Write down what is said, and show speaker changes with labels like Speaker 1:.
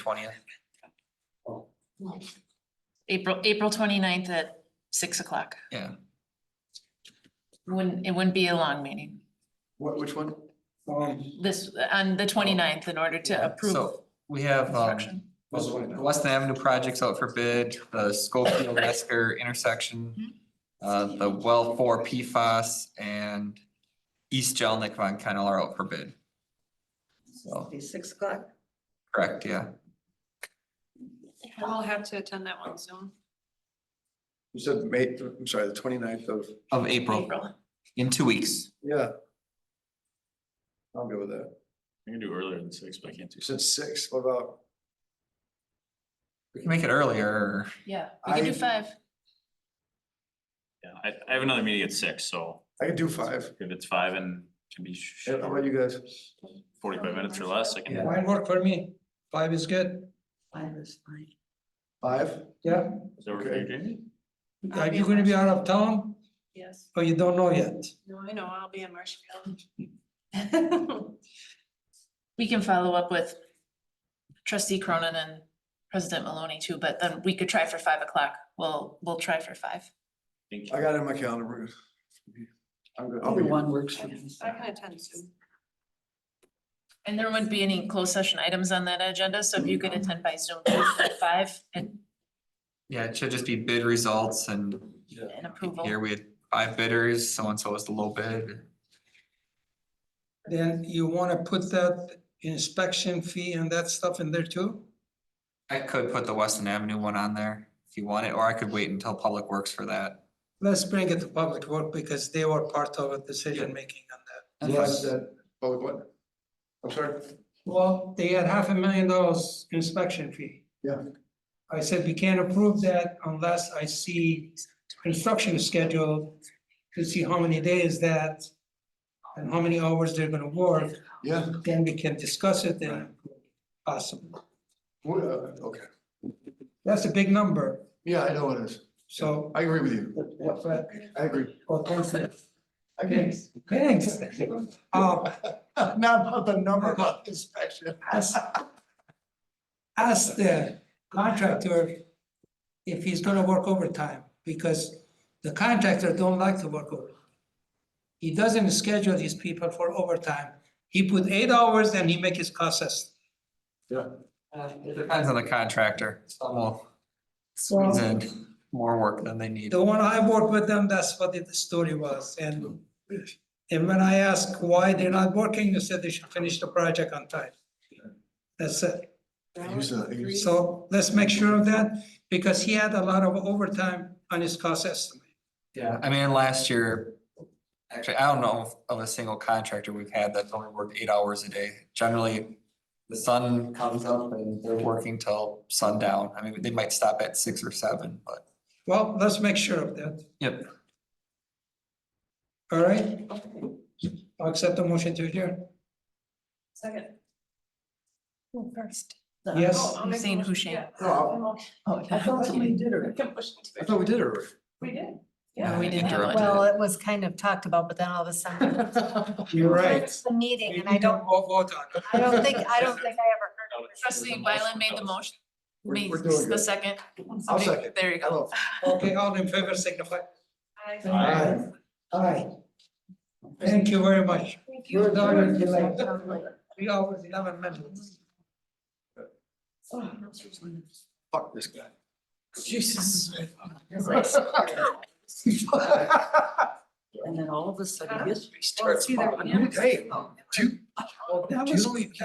Speaker 1: twentieth.
Speaker 2: April, April 29th at six o'clock.
Speaker 1: Yeah.
Speaker 2: Wouldn't, it wouldn't be a long meeting.
Speaker 1: What, which one?
Speaker 3: Um,
Speaker 2: This, on the 29th, in order to approve
Speaker 1: So we have, um,
Speaker 2: construction.
Speaker 1: the Weston Avenue projects out for bid, the Schofield Mesker intersection, uh, the well four PFAS and East Jelnik von Kennel are out for bid. So,
Speaker 4: Be six o'clock.
Speaker 1: correct, yeah.
Speaker 5: I'll have to attend that one soon.
Speaker 3: You said May, I'm sorry, the 29th of,
Speaker 1: Of April,
Speaker 2: April.
Speaker 1: in two weeks.
Speaker 3: yeah. I'll go with that.
Speaker 6: I can do earlier than six, but I can't do
Speaker 3: You said six, what about,
Speaker 1: We can make it earlier.
Speaker 2: Yeah, we can do
Speaker 3: I-
Speaker 2: five.
Speaker 6: Yeah, I, I have another meeting at six, so
Speaker 3: I could do five.
Speaker 6: if it's five and can be sh-
Speaker 3: How about you guys?
Speaker 6: forty-five minutes or less, I can,
Speaker 7: Mine work for me. Five is good.
Speaker 4: Five is fine.
Speaker 3: Five?
Speaker 7: Yeah.
Speaker 6: is that okay, Jamie?
Speaker 7: Are you gonna be out of town
Speaker 5: Yes,
Speaker 7: or you don't know yet?
Speaker 5: no, I know, I'll be in Marshfield.
Speaker 2: We can follow up with trustee Cronin and president Maloney too, but then we could try for five o'clock. We'll, we'll try for five.
Speaker 6: Thank you.
Speaker 3: I got it in my calendar. we're good. I'm good. I'll
Speaker 4: Either
Speaker 3: be-
Speaker 4: one works for me.
Speaker 5: I can attend soon.
Speaker 2: And there wouldn't be any closed session items on that agenda, so if you could attend by Zoom at five and
Speaker 1: Yeah, it should just be bid results and
Speaker 2: and approval.
Speaker 1: here we had five bidders, so and so was the low bid.
Speaker 7: Then you wanna put that inspection fee and that stuff in there too?
Speaker 1: I could put the Weston Avenue one on there if you want it, or I could wait until Public Works for that.
Speaker 7: Let's bring it to public work because they were part of the decision making on that.
Speaker 1: That's
Speaker 3: Yeah, I
Speaker 1: fine.
Speaker 3: said- Oh, what? I'm sorry.
Speaker 7: Well, they had half a million dollars inspection fee.
Speaker 3: Yeah.
Speaker 7: I said we can't approve that unless I see construction schedule to see how many days that and how many hours they're gonna work.
Speaker 3: Yeah,
Speaker 7: then we can discuss it then, possible.
Speaker 3: well, uh, okay.
Speaker 7: That's a big number,
Speaker 3: Yeah, I know it is.
Speaker 7: so.
Speaker 3: I agree with you.
Speaker 7: what- what-
Speaker 3: I agree.
Speaker 7: what was it?
Speaker 3: I agree.
Speaker 7: Thanks. Uh,
Speaker 3: Um, Not about the number, but inspection.
Speaker 7: ask, ask the contractor if he's gonna work overtime, because the contractor don't like to work over. He doesn't schedule these people for overtime. He put eight hours and he make his costs.
Speaker 1: It Depends on the contractor. Some will squeeze in more work than they need.
Speaker 7: The one I worked with them, that's what the story was, and, and when I asked why they're not working, they said they should finish the project on time. That's it,
Speaker 3: Here's a- here's-
Speaker 7: so let's make sure of that, because he had a lot of overtime on his cost estimate.
Speaker 1: Yeah, I mean, last year, actually, I don't know of a single contractor we've had that's only worked eight hours a day. Generally, the sun comes up and they're working till sundown. I mean, they might stop at six or seven, but.
Speaker 7: Well, let's make sure of that,
Speaker 1: Yep.
Speaker 7: all right? I'll accept the motion to adjourn,
Speaker 5: Second.
Speaker 2: First.
Speaker 7: yes,
Speaker 5: I'll make a
Speaker 2: Hussein
Speaker 5: motion.
Speaker 2: Hussein.
Speaker 5: Yeah.
Speaker 3: No, I-
Speaker 2: Oh,
Speaker 4: I thought somebody did
Speaker 5: I
Speaker 4: it.
Speaker 5: can push it.
Speaker 3: I thought we did it already.
Speaker 5: We did.
Speaker 2: No, we didn't have
Speaker 1: Interrupted
Speaker 2: one.
Speaker 1: it.
Speaker 8: Well, it was kind of talked about, but then all of a sudden.
Speaker 7: you're right.
Speaker 8: it's The meeting and I don't,
Speaker 7: Vote vote on it.
Speaker 8: I don't think, I don't think I ever heard
Speaker 2: Trustee Wyland made the motion,
Speaker 3: We're-
Speaker 2: made
Speaker 3: we're doing
Speaker 2: the
Speaker 3: good.
Speaker 2: second.
Speaker 3: I'll second.
Speaker 2: There you go.
Speaker 3: Hello.
Speaker 7: Okay, all in favor signify.
Speaker 6: Aye.
Speaker 7: Aye. Thank you very much. Your daughter is like, we always love a minutes.
Speaker 3: Oh, Fuck this guy.
Speaker 5: Jesus.
Speaker 4: And then all of a sudden history starts.
Speaker 5: either
Speaker 4: following.
Speaker 3: Hey, do,
Speaker 7: That
Speaker 3: do you
Speaker 7: was
Speaker 3: believe-